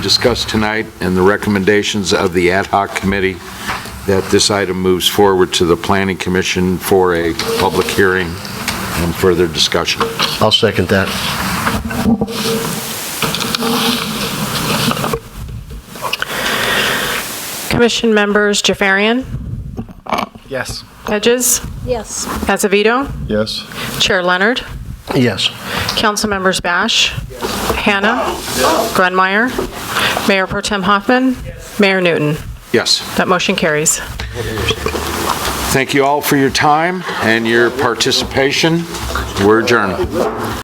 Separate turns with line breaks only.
discussed tonight and the recommendations of the ad hoc committee, that this item moves forward to the planning commission for a public hearing and further discussion.
I'll second that.
Commission members Jafarian,
Yes.
Hedges,
Yes.
Acevedo,
Yes.
Chair Leonard,
Yes.
Council members Bash, Hannah, Glenmeyer, Mayor Pro Tem Hoffman, Mayor Newton.
Yes.
That motion carries.
Thank you all for your time and your participation. We're adjourned.